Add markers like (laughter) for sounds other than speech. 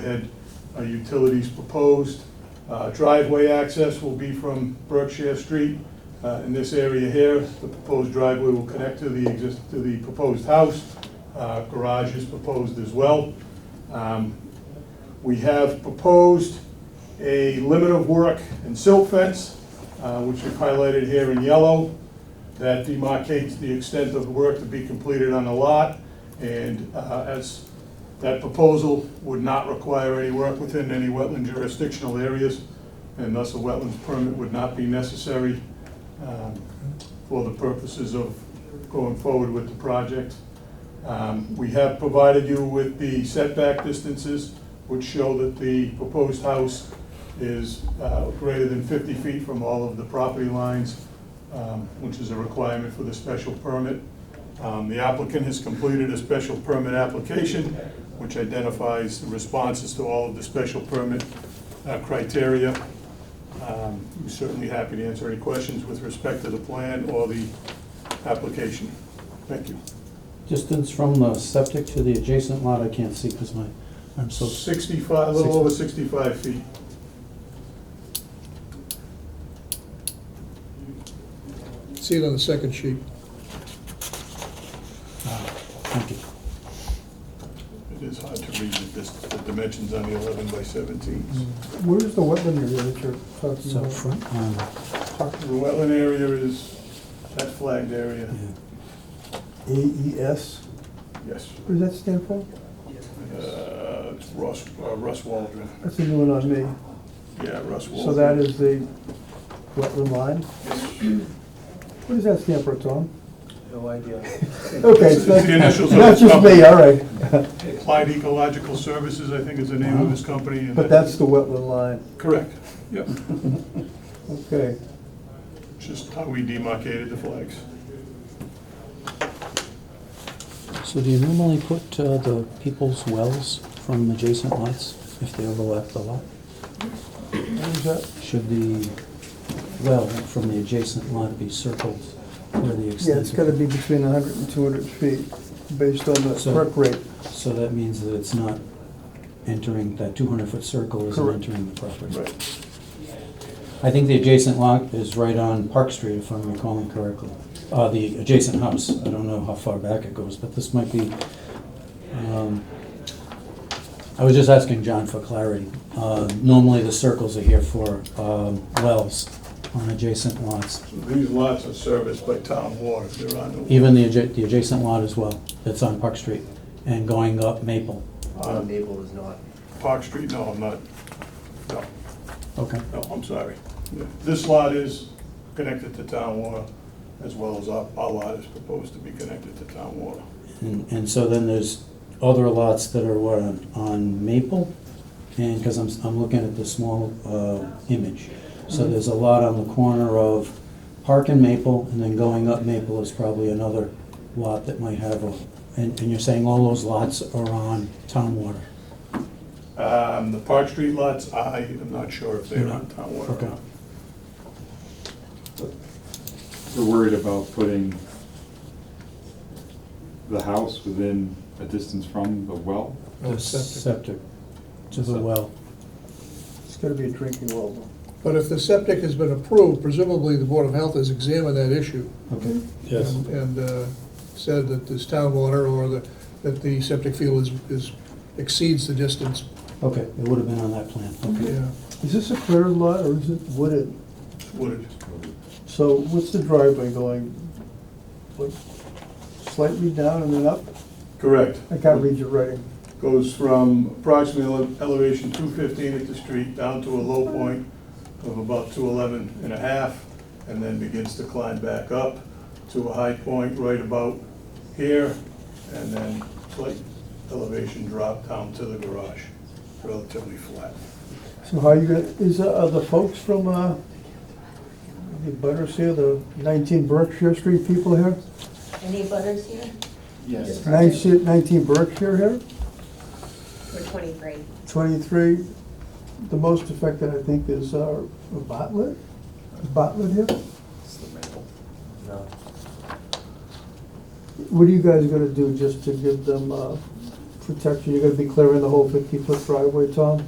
had uh, utilities proposed. Uh, Driveway access will be from Berkshire Street. Uh, In this area here, the proposed driveway will connect to the exist, to the proposed house. Uh, Garage is proposed as well. Um, We have proposed a limit of work and silt fence, uh, which we've highlighted here in yellow, that demarcates the extent of work to be completed on the lot. And uh, as that proposal would not require any work within any wetland jurisdictional areas, and thus a wetlands permit would not be necessary um, for the purposes of going forward with the project. Um, We have provided you with the setback distances, which show that the proposed house is uh, greater than 50 feet from all of the property lines, um, which is a requirement for the special permit. Um, The applicant has completed a special permit application, which identifies the responses to all of the special permit uh, criteria. Um, We're certainly happy to answer any questions with respect to the plan or the application. Thank you. Distance from the septic to the adjacent lot, I can't see because my, I'm so, 65, a little over 65 feet. See it on the second sheet. uh, thank you. It is hard to read the dis- the dimensions on the 11 by 17. Where is the wetland area that you're talking So about? front, um, The wetland area is, that flagged area, AES? yes. What E does that stand for? Uh, It's Russ, uh, Russ Waldron. That's a new one on me. Yeah, Russ Waldron. So that is the wetland line? What does that stand for, Tom? No idea. (laughs) Okay, It's so the that's initials of (laughs) not his just company. me, uh, all right. Applied Ecological Services, I think is the name of his company. and Uh-huh. But that's the wetland line, Correct, yep. okay. Just how we demarcated the flags. so do you normally put uh, the people's wells from adjacent lots if they overlap the lot? What was that? Should the well from the adjacent lot be circled where the Yeah, it's gotta extent? be between 100 and 200 feet, based on the So- perk rate. So that means that it's not entering, that 200-foot circle isn't Correct. entering the property. Right. I think the adjacent lot is right on Park Street, if I'm recalling correctly. Uh, the adjacent house, I don't know how far back it goes, but this might be, um, I was just asking John for clarity. Uh, normally the circles are here for, um, wells on adjacent lots, So These lots are serviced by town water, they're on the. even the adja- the adjacent lot as well, that's on Park Street, and going up Maple. Uh, Maple is not. Park Street, no, I'm not, no, Okay, no, I'm sorry. Yeah. This lot is connected to town water, as well as our, our lot is proposed to be connected to town water. and, and so then there's other lots that are what, on, on Maple? And, because I'm, s- I'm looking at the small uh, image. So there's a lot on the corner of Park and Maple, and then going up Maple is probably another lot that might have a, and, and you're saying all those lots are on town water? Um, the Park Street lots, I am not sure if they're on town water or Okay. not. We're worried about putting the house within a distance from the well. No, The septic. Septic to the well. It's gotta be a drinking well, though. But if the septic has been approved, presumably the Board of Health has examined that issue. Okay. and- And uh, said that this town water or the, that the septic field is, is exceeds the distance. Okay, it would have been on that plan, okay. Yeah. Is this a cleared lot, or is it wooded? It's wooded. So what's the driveway going, like slightly down and then up? Correct. I can't read your writing. Goes from approximately ele- elevation 215 at the street down to a low point of about 211 and a half, and then begins to climb back up to a high point right about here, and then slight elevation drop down to the garage, relatively flat. So how you gonna, is, uh, are the folks from, uh, the butters here, the nineteen Berkshire Street people here? Any butters here? Yes. Nineteen 19 Berkshire here, We're twenty-three. twenty-three, the most affected, I think, is, uh, Botlet? Is Botlet here? It's the Maple. No. What are you guys gonna do just to give them, uh, protection, you're gonna be clearing the whole fifty-foot driveway, Tom?